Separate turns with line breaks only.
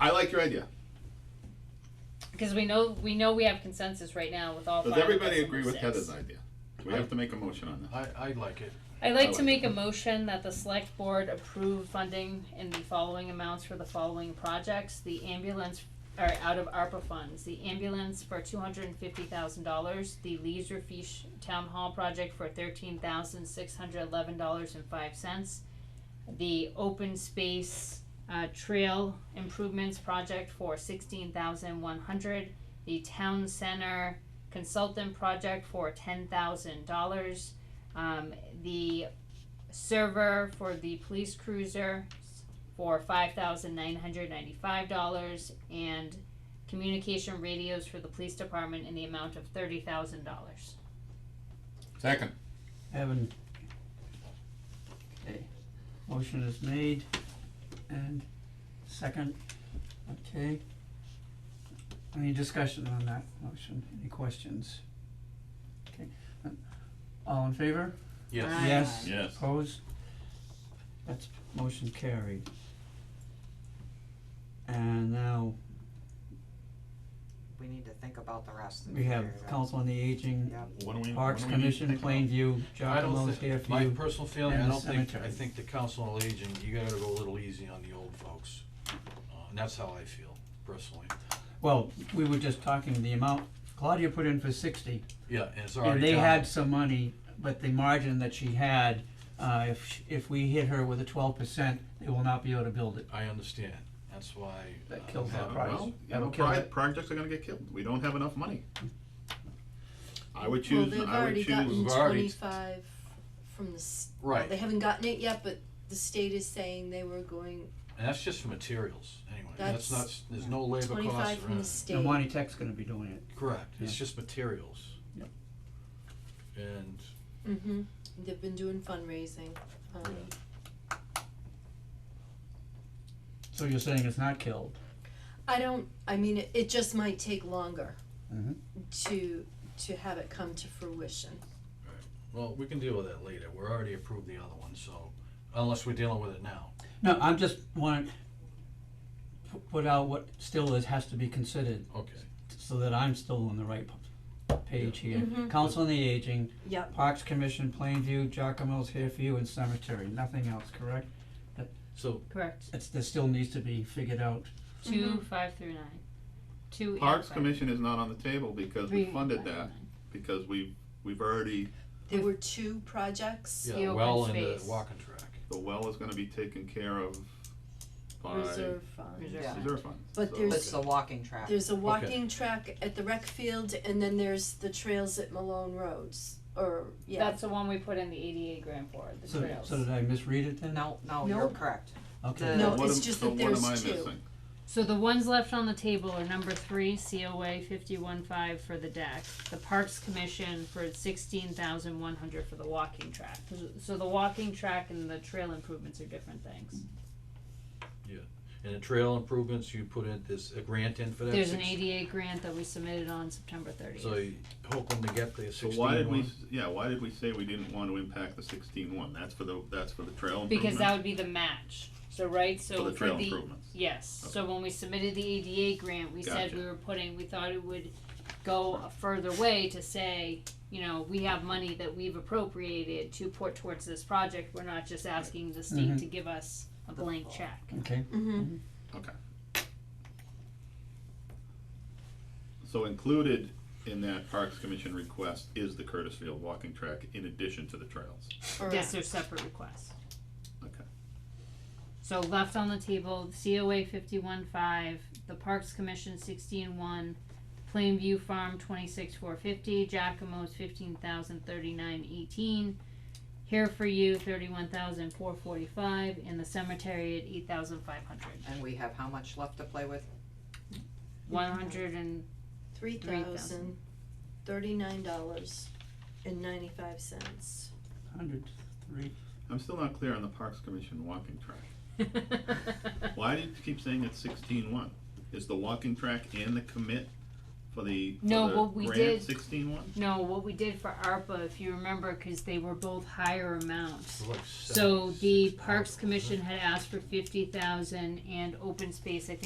I like your idea.
Because we know we know we have consensus right now with all.
Does
five of
everybody
us on
agree
the
with
six.
Heather's idea? Do we have to make a motion on this?
I, I like it.
I'd like
I
to
like
make a motion that the select board approve funding in the following amounts for the following projects. The ambulance, or out of ARPA funds, the ambulance for two hundred and fifty thousand dollars, the Leisure Fish Town Hall project for thirteen thousand six hundred eleven dollars and five cents. The open space, uh, trail improvements project for sixteen thousand one hundred. The town center consultant project for ten thousand dollars um, the server for the police cruiser for five thousand nine hundred ninety-five dollars, and communication radios for the police department in the amount of thirty thousand dollars.
Second.
Evan. Okay, motion is made and second, okay. Any discussion on that motion, any questions? Okay, uh, all in favor?
Yes.
Aye.
Yes.
Yes.
Opposed? That's motion carried. And now
We need to think about the rest of the
we
year.
have
though.
Council on the Aging,
Yep.
What do we? what
Parks
do we need to
Commission,
think about?
Plainview,
I don't
Jacomo's here
think,
for
my
you.
personal feeling, I
and
don't think, I
cemetery.
think the council on aging, you gotta go a little easy on the old folks. Uh, And that's how I feel personally.
Well, we were just talking, the amount Claudia put in for sixty,
Yeah, and it's
and
already
they
down.
had some money, but the margin that she had, uh, if, sh- if we hit her with a twelve percent, they will not be able to build it.
I understand, that's why.
That
uh,
kills that
Uh,
price.
Well, you
That'll
know,
kill
pri-
it.
projects are gonna get killed. We don't have enough money. I would
Well,
choose,
they've
I would
already gotten
choose,
We've already-
twenty-five from the, s- well,
Right.
they haven't gotten it yet, but the state is saying they were going
And that's just for materials, anyway, that's
That's
not, there's no labor costs or
twenty-five from the
anything.
state.
And Monty Tech's gonna be doing it.
Correct, it's
Yeah.
just materials.
Yep.
And
Mm-hmm, they've been doing fundraising, um,
So you're saying it's not killed?
I don't, I mean, it, it just might take longer
Mm-hmm.
to, to have it come to fruition.
Well, we can deal with that later, we're already approved the other one, so, unless we're dealing with it now.
No, I'm just want to put out what still is, has to be considered,
Okay.
so that I'm still on the right p- page here.
Mhm.
Council on the Aging,
Yep,
Parks Commission, Plainview, Giacomo's here for you, and Cemetery, nothing else, correct?
So,
Correct.
It's, that still needs to be figured out.
2 five through nine. Two. and
Parks
five.
Commission is not on the table because
Three
we
and
funded
five through
that,
nine.
because we, we've already,
there were two projects,
The
yeah,
open
well, and the
space.
walking track.
the well is gonna be taken care of by
reserve fund.
Reserve
Yeah.
reserve funds.
But
So-
there's-
It's the walking track.
There's a walking track at the rec field, and then there's the trails at Malone Roads, or, yeah,
That's the one we put in the eighty-eight grand for, the
So,
trails.
so did I misread it then?
No, no,
No.
you're correct.
Okay.
So
No,
what
it's
am-
just
so
that
what am
there's
I
two.
missing?
So the ones left on the table are number three, COA fifty-one five for the deck, the Parks Commission for sixteen thousand one hundred for the walking track. So the walking track and the trail improvements are different things.
And the trail improvements, you put in this, a grant in for that?
There's an
six-
eighty-eight grant that we submitted on September thirtieth.
So you hope them to get the
So
sixteen
why did we,
one?
s- yeah, why did we say we didn't want to impact the sixteen one? That's for the, that's for the trail
Because that
improvements,
would be the match, so right,
for
so
the
for
trail
the,
improvements.
yes, so when we submitted the ADA grant, we said
Gotcha.
we were putting, we thought it would go a further way to say, you know, we have money that we've appropriated to put towards this project, we're not just asking the state
Mhm.
to give us a blank check.
Okay,
mm-hmm.
So included in that Parks Commission request is the Curtis Field walking track in addition to the trails.
Yes, they're separate requests.
Okay.
So left on the table, COA fifty-one five, the Parks Commission sixteen one, Plainview Farm twenty-six four fifty, Giacomo's fifteen thousand thirty-nine eighteen, Here for You thirty-one thousand four forty-five, and the cemetery at eight thousand five hundred.
And we have how much left to play with?
One hundred and,
Three thousand thirty-nine dollars and ninety-five cents.
hundred, three,
I'm still not clear on the Parks Commission walking track. Why do you keep saying it's sixteen one? Is the walking track and the commit for the, for
No,
the
what we
grant
did-
sixteen one?
no, what we did for ARPA, if you remember, cause they were both higher amounts.
Like
So the
seven-
Parks Commission had asked for fifty thousand and open space, I think